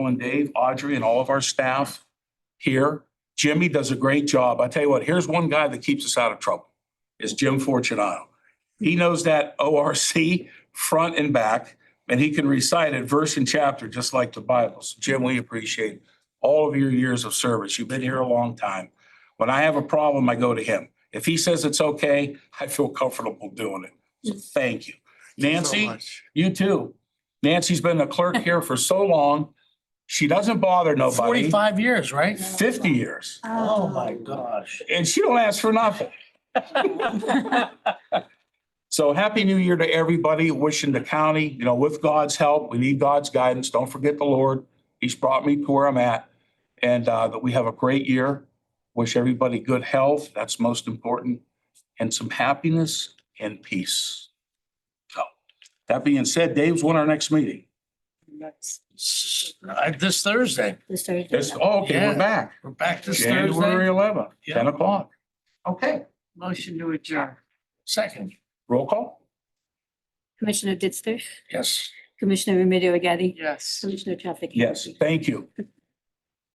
and Dave, Audrey, and all of our staff here. Jimmy does a great job. I tell you what, here's one guy that keeps us out of trouble, is Jim Fortunato. He knows that ORC front and back, and he can recite it verse and chapter, just like the Bible. So Jim, we appreciate all of your years of service. You've been here a long time. When I have a problem, I go to him. If he says it's okay, I feel comfortable doing it. So thank you. Nancy? You too. Nancy's been a clerk here for so long. She doesn't bother nobody. Forty-five years, right? Fifty years. Oh, my gosh. And she don't ask for nothing. So happy new year to everybody. Wishing the county, you know, with God's help, we need God's guidance. Don't forget the Lord. He's brought me to where I'm at. And uh, that we have a great year. Wish everybody good health. That's most important. And some happiness and peace. So that being said, Dave's when our next meeting? S- uh, This Thursday, This Thursday. It's, oh, okay, we're Yeah. back. we're back this January Thursday. eleventh, Yeah. ten o'clock. Okay, Motion to adjourn. Second, roll call? Commissioner Ditzler, yes. Commissioner Remedy Agati, Yes. Commissioner Trafficant. Yes, thank you.